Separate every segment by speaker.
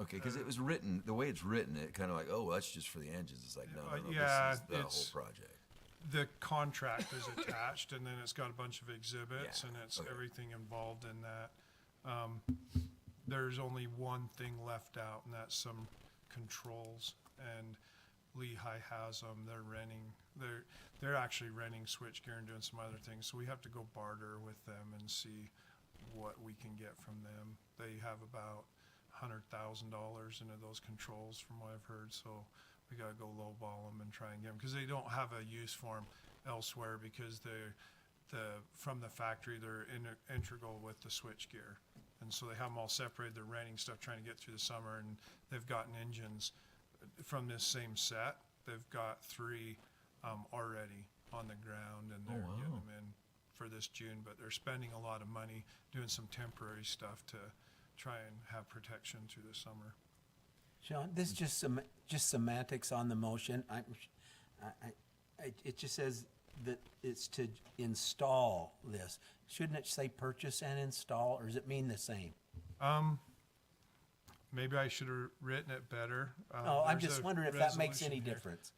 Speaker 1: Okay, because it was written, the way it's written, it kind of like, oh, that's just for the engines. It's like, no,
Speaker 2: Uh,
Speaker 1: no, no,
Speaker 2: yeah,
Speaker 1: this is the whole
Speaker 2: it's-
Speaker 1: project.
Speaker 2: The contract is attached, and then it's got a bunch of exhibits,
Speaker 1: Yeah,
Speaker 2: and it's
Speaker 1: okay.
Speaker 2: everything involved in that. Um, There's only one thing left out, and that's some controls, and Lehigh has them, they're renting, they're, they're actually renting switchgear and doing some other things, so we have to go barter with them and see what we can get from them. They have about hundred thousand dollars into those controls from what I've heard, so we gotta go lowball them and try and get them, cause they don't have a use for them elsewhere because they're, the, from the factory, they're in, integral with the switchgear. And so they have them all separated, they're renting stuff, trying to get through the summer, and they've gotten engines from this same set. They've got three, um, already on the ground and they're getting them in for this June, but they're spending a lot of money doing some temporary stuff to try and have protection through the summer.
Speaker 3: Sean, this is just sem- just semantics on the motion. I, I, I, it just says that it's to install this. Shouldn't it say purchase and install, or does it mean the same?
Speaker 2: Um, maybe I should have written it better. Um,
Speaker 3: No, Oh, I'm
Speaker 2: there's
Speaker 3: just
Speaker 2: a
Speaker 3: wondering if that makes
Speaker 2: resolution
Speaker 3: any
Speaker 2: here.
Speaker 3: difference.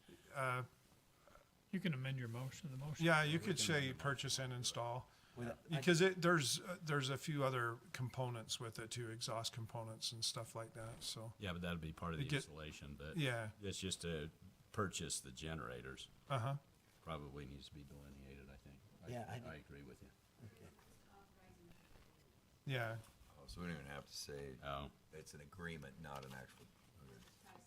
Speaker 4: You can amend your motion, the motion.
Speaker 2: Yeah, you could say purchase and install.
Speaker 3: Without- I-
Speaker 2: Uh, Because it, there's, uh, there's a few other components with it too, exhaust components and stuff like that, so,
Speaker 5: Yeah, but that'd be part of the
Speaker 2: get-
Speaker 5: installation, but.
Speaker 2: yeah,
Speaker 5: It's just to purchase the generators,
Speaker 2: uh-huh.
Speaker 5: probably needs to be delineated, I think. I-
Speaker 3: Yeah, I-
Speaker 5: I agree with you.
Speaker 2: Yeah,
Speaker 1: Oh, so we don't even have to say
Speaker 4: Uh,
Speaker 5: Oh,
Speaker 1: it's an agreement, not an actual. okay.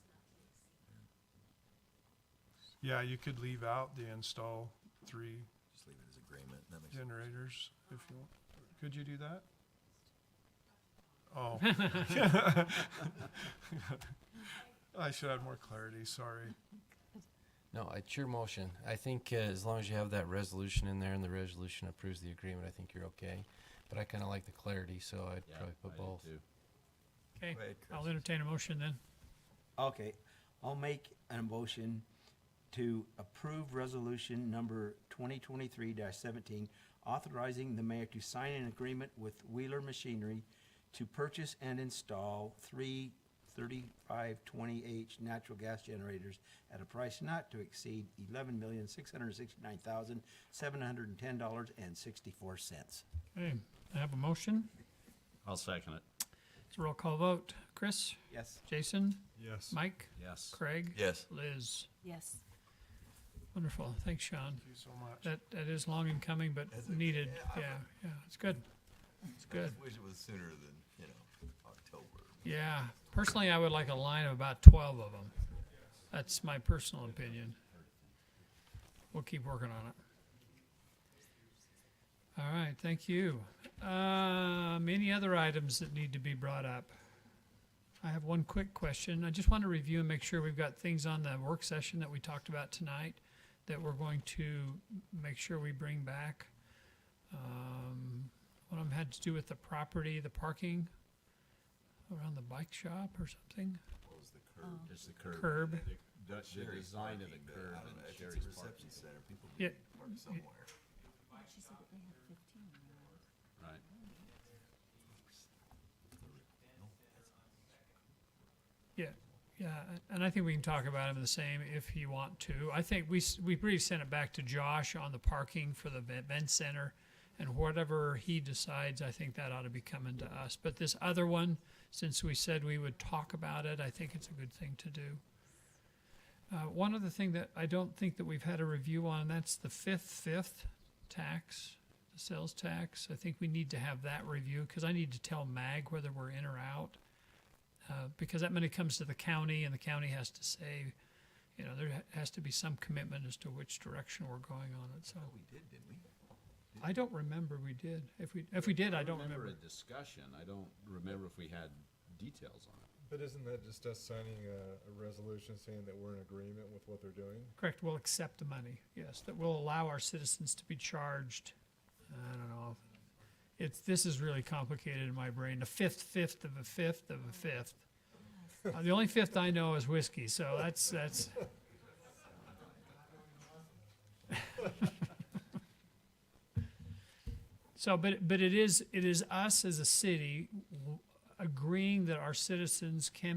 Speaker 2: yeah, you could leave out the install three
Speaker 1: Just leave it as agreement. That makes
Speaker 2: generators if you want. Could you do that? Oh. I should have more clarity, sorry.
Speaker 6: No, it's your motion. I think uh, as long as you have that resolution in there and the resolution approves the agreement, I think you're okay. But I kind of like the clarity, so I'd
Speaker 5: yeah.
Speaker 6: probably
Speaker 5: I
Speaker 6: put
Speaker 5: do
Speaker 6: both.
Speaker 5: too.
Speaker 4: Okay,
Speaker 1: Go ahead,
Speaker 4: I'll
Speaker 1: Chris.
Speaker 4: entertain a motion then.
Speaker 3: Okay, I'll make a motion to approve resolution number twenty twenty-three seventeen, authorizing the mayor to sign an agreement with Wheeler Machinery to purchase and install three 3520 H natural gas generators at a price not to exceed eleven million, six hundred sixty-nine thousand, seven hundred and ten dollars and sixty-four cents.
Speaker 4: Okay, I have a motion.
Speaker 5: I'll second it.
Speaker 4: It's a roll call vote. Chris,
Speaker 3: Yes,
Speaker 4: Jason,
Speaker 2: Yes.
Speaker 4: Mike,
Speaker 5: Yes.
Speaker 4: Craig.
Speaker 1: Yes.
Speaker 4: Liz.
Speaker 7: Yes.
Speaker 4: Wonderful. Thanks, Sean.
Speaker 2: Thank you so much.
Speaker 4: That, that is long in coming, but needed. Yeah, yeah, it's good. It's good.
Speaker 1: I wish it was sooner than, you know, October.
Speaker 4: Yeah, personally, I would like a line of about twelve of them. That's my personal opinion. We'll keep working on it. All right, thank you. Um, any other items that need to be brought up? I have one quick question. I just want to review and make sure we've got things on the work session that we talked about tonight that we're going to make sure we bring back. Um, one of them had to do with the property, the parking around the bike shop or something.
Speaker 5: It's the curb.
Speaker 4: Curb.
Speaker 5: The- The, the design of the
Speaker 1: But
Speaker 5: curb
Speaker 1: I don't
Speaker 5: and
Speaker 1: know, if it's
Speaker 5: Sherry's
Speaker 1: a
Speaker 5: parking,
Speaker 1: reception center, people
Speaker 4: Yeah.
Speaker 1: need to park somewhere.
Speaker 7: She said that they had fifteen.
Speaker 5: right.
Speaker 4: Yeah, yeah, and I think we can talk about him the same if you want to. I think we s- we pretty sent it back to Josh on the parking for the ve- event center, and whatever he decides, I think that ought to be coming to us. But this other one, since we said we would talk about it, I think it's a good thing to do. Uh, one other thing that I don't think that we've had a review on, that's the fifth, fifth tax, the sales tax. I think we need to have that review because I need to tell MAG whether we're in or out. Uh, because that money comes to the county and the county has to say, you know, there ha- has to be some commitment as to which direction we're going on it. So
Speaker 1: Oh, We did, didn't we?
Speaker 4: I don't remember we did. If we, if we did, I don't remember.
Speaker 5: a discussion. I don't remember if we had details on it.
Speaker 8: But isn't that just us signing a, a resolution saying that we're in agreement with what they're doing?
Speaker 4: Correct, we'll accept the money, yes, that will allow our citizens to be charged. I don't know. It's, this is really complicated in my brain, the fifth, fifth of a fifth of a fifth. Uh, The only fifth I know is whiskey, so that's, that's. So, but, but it is, it is us as a city w- agreeing that our citizens can